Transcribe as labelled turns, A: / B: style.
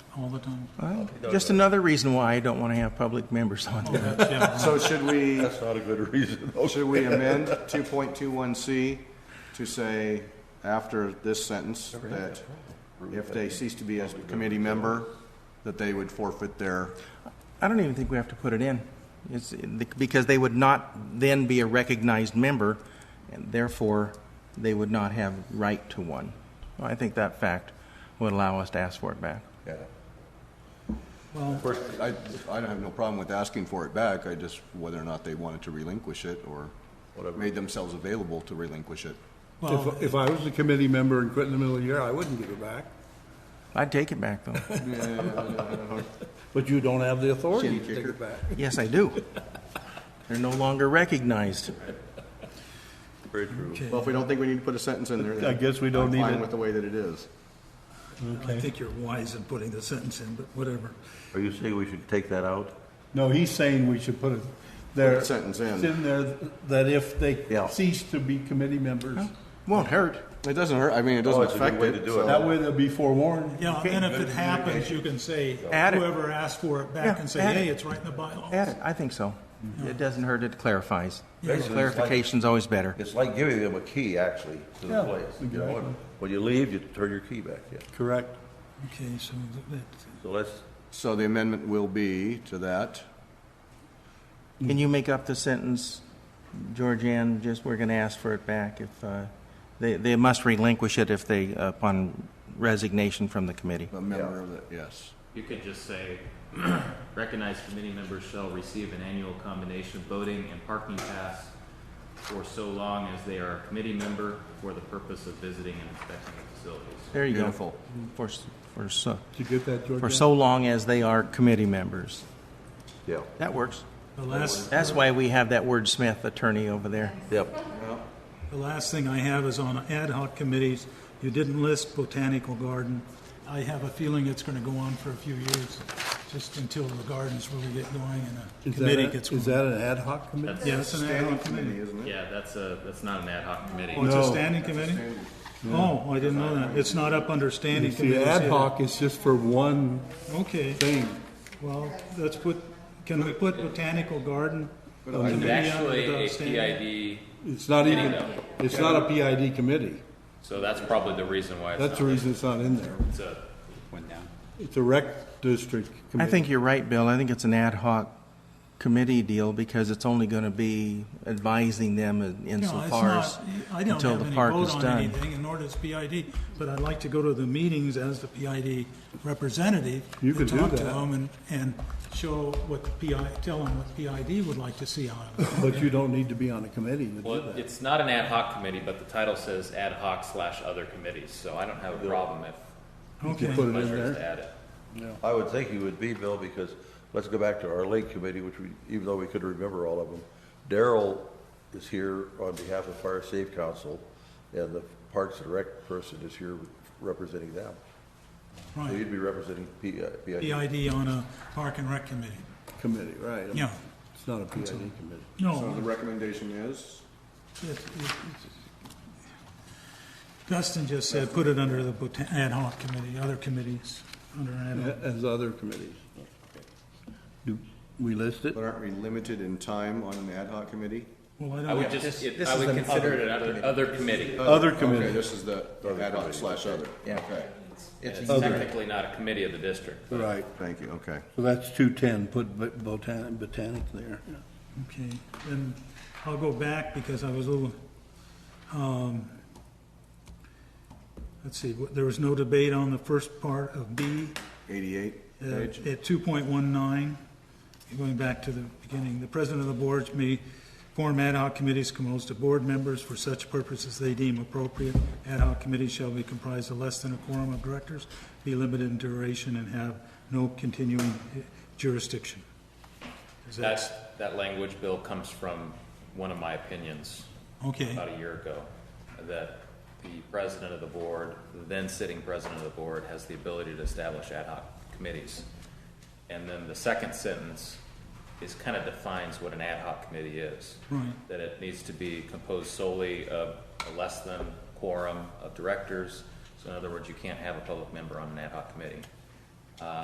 A: all the time.
B: Well, Just another reason why I don't want to have public members on there.
A: Yeah,
C: So should we,
D: That's not a good reason.
C: should we amend 2.21C to say after this sentence that if they cease to be a committee member, that they would forfeit their,
B: I don't even think we have to put it in. It's, because they would not then be a recognized member, and therefore, they would not have right to one. I think that fact would allow us to ask for it back.
D: Yeah.
C: of course, I, I don't have no problem with asking for it back. I just, whether or not they wanted to relinquish it or made themselves available to relinquish it.
A: well,
E: If, if I was a committee member and quit in the middle of the year, I wouldn't give it back.
B: I'd take it back, though.
E: But you don't have the authority to take
C: kicker.
E: it back.
B: Yes, I do. They're no longer recognized.
D: Very true.
C: Well, if we don't think we need to put a sentence in there, then
E: I guess we don't
C: I'm
E: need
C: fine
E: it.
C: with the way that it is.
A: I think you're wise in putting the sentence in, but whatever.
D: Are you saying we should take that out?
E: No, he's saying we should put it there.
C: Put a sentence in.
E: It's in there that if they
D: Yeah.
E: cease to be committee members,
B: Won't hurt.
C: It doesn't hurt, I mean, it doesn't
D: Oh, it's a good
C: affect
D: way
C: it.
D: to do it.
C: so-
E: that way they'll be forewarned.
A: Yeah, and if it happens, you can say,
B: Add it.
A: whoever asked for it
B: Yeah,
A: back and say,
B: add it.
A: hey, it's right in the bylaws.
B: Add it, I think so. It doesn't hurt, it clarifies.
D: Mm-hmm. Basically, it's like-
B: Clarification's always better.
D: It's like giving them a key, actually, to the
E: Yeah,
D: place. you know?
E: exactly.
D: When you leave, you turn your key back in.
E: Correct.
A: Okay, so that,
D: So let's,
C: So the amendment will be to that.
B: Can you make up the sentence, Georgianne, just we're going to ask for it back if, uh, they, they must relinquish it if they, uh, upon resignation from the committee?
C: A member of the, yes.
F: You could just say, recognized committee members shall receive an annual combination of voting and parking pass for so long as they are a committee member for the purpose of visiting and inspecting the facilities.
B: There you go.
C: Beautiful.
B: For, s- for so,
E: Did you get that, George?
B: for so long as they are committee members.
D: yeah.
B: That works.
A: the last,
B: That's why we have that wordsmith attorney over there.
D: Yep.
A: the last thing I have is on ad hoc committees. You didn't list botanical garden. I have a feeling it's gonna go on for a few years, just until the gardens really get going and a
E: Is
A: committee
E: that,
A: gets
E: a-
A: going.
E: is that an ad hoc committee?
F: That's,
A: Yeah, it's an ad hoc committee.
C: isn't
F: yeah, that's a, that's not an ad hoc committee.
A: Oh, it's a
E: No.
A: standing committee? Oh, I didn't know that. It's not up under standing
E: See,
A: committees.
E: ad
A: either.
E: hoc is just for one
A: Okay,
E: thing.
A: well, let's put, can we put botanical garden?
F: It's
A: committee under the
F: actually a
A: standing?
F: PID,
E: It's not even,
F: though.
E: it's not a PID committee.
F: so that's probably the reason why
E: That's
F: it's
E: the
F: not.
E: reason it's not in there.
F: It's a,
E: It's a rec district
B: I
E: committee.
B: think you're right, Bill. I think it's an ad hoc committee deal because it's only going to be advising them in-
A: No, it's
B: insofar as
A: not, I don't
B: until
A: have
B: the
A: any
B: park
A: vote
B: is
A: on
B: done.
A: anything, and nor does PID, but I'd like to go to the meetings as the PID representative.
E: You could do
A: And talk to
E: that.
A: them and, and show what the PI, tell them what PID would like to see on it.
E: But you don't need to be on a committee to do
F: well,
E: that.
F: it's not an ad hoc committee, but the title says ad hoc slash other committees, so I don't have a problem if
E: You
A: Okay,
E: put it in
F: pleasure
E: there.
F: is to add it.
D: I would think you would be, Bill, because let's go back to our lake committee, which we, even though we could remember all of them. Daryl is here on behalf of Fire Safe Council, and the Parks and Rec person is here representing them. So
A: right,
D: you'd be representing P, uh, PID.
A: PID on a park and rec committee,
E: Committee, right.
A: yeah,
E: It's not a PID committee.
C: So the
A: no,
C: recommendation is,
A: Dustin just said, put it under the botan- ad hoc committee, other committees, under ad hoc.
E: As other committees. Do we list it?
C: but aren't we limited in time on an ad hoc committee?
A: Well, I
F: I
A: don't
F: would
A: have,
F: just, it- I would consider it another, other committee.
E: Other
C: Okay,
E: committee,
C: this is the ad hoc slash other.
B: Yeah.
C: Okay,
F: And It's technically not a committee of the district, but
E: right.
C: thank you, okay.
E: So that's two ten, put bo- botan botanic there.
A: okay, then I'll go back because I was a little, um, let's see, what- there was no debate on the first part of B
C: Eighty-eight
A: uh,
C: page.
A: at two point one nine, going back to the beginning, the president of the board may form ad hoc committees composed of board members for such purposes they deem appropriate. Ad hoc committees shall be comprised of less than a quorum of directors, be limited in duration, and have no continuing eh, jurisdiction. Is that-
F: that's, that language, Bill, comes from one of my opinions
A: Okay.
F: about a year ago, that the president of the board, the then sitting president of the board, has the ability to establish ad hoc committees. And then the second sentence is kind of defines what an ad hoc committee is.
A: Right.
F: That it needs to be composed solely of a less than quorum of directors. So in other words, you can't have a public member on an ad hoc committee.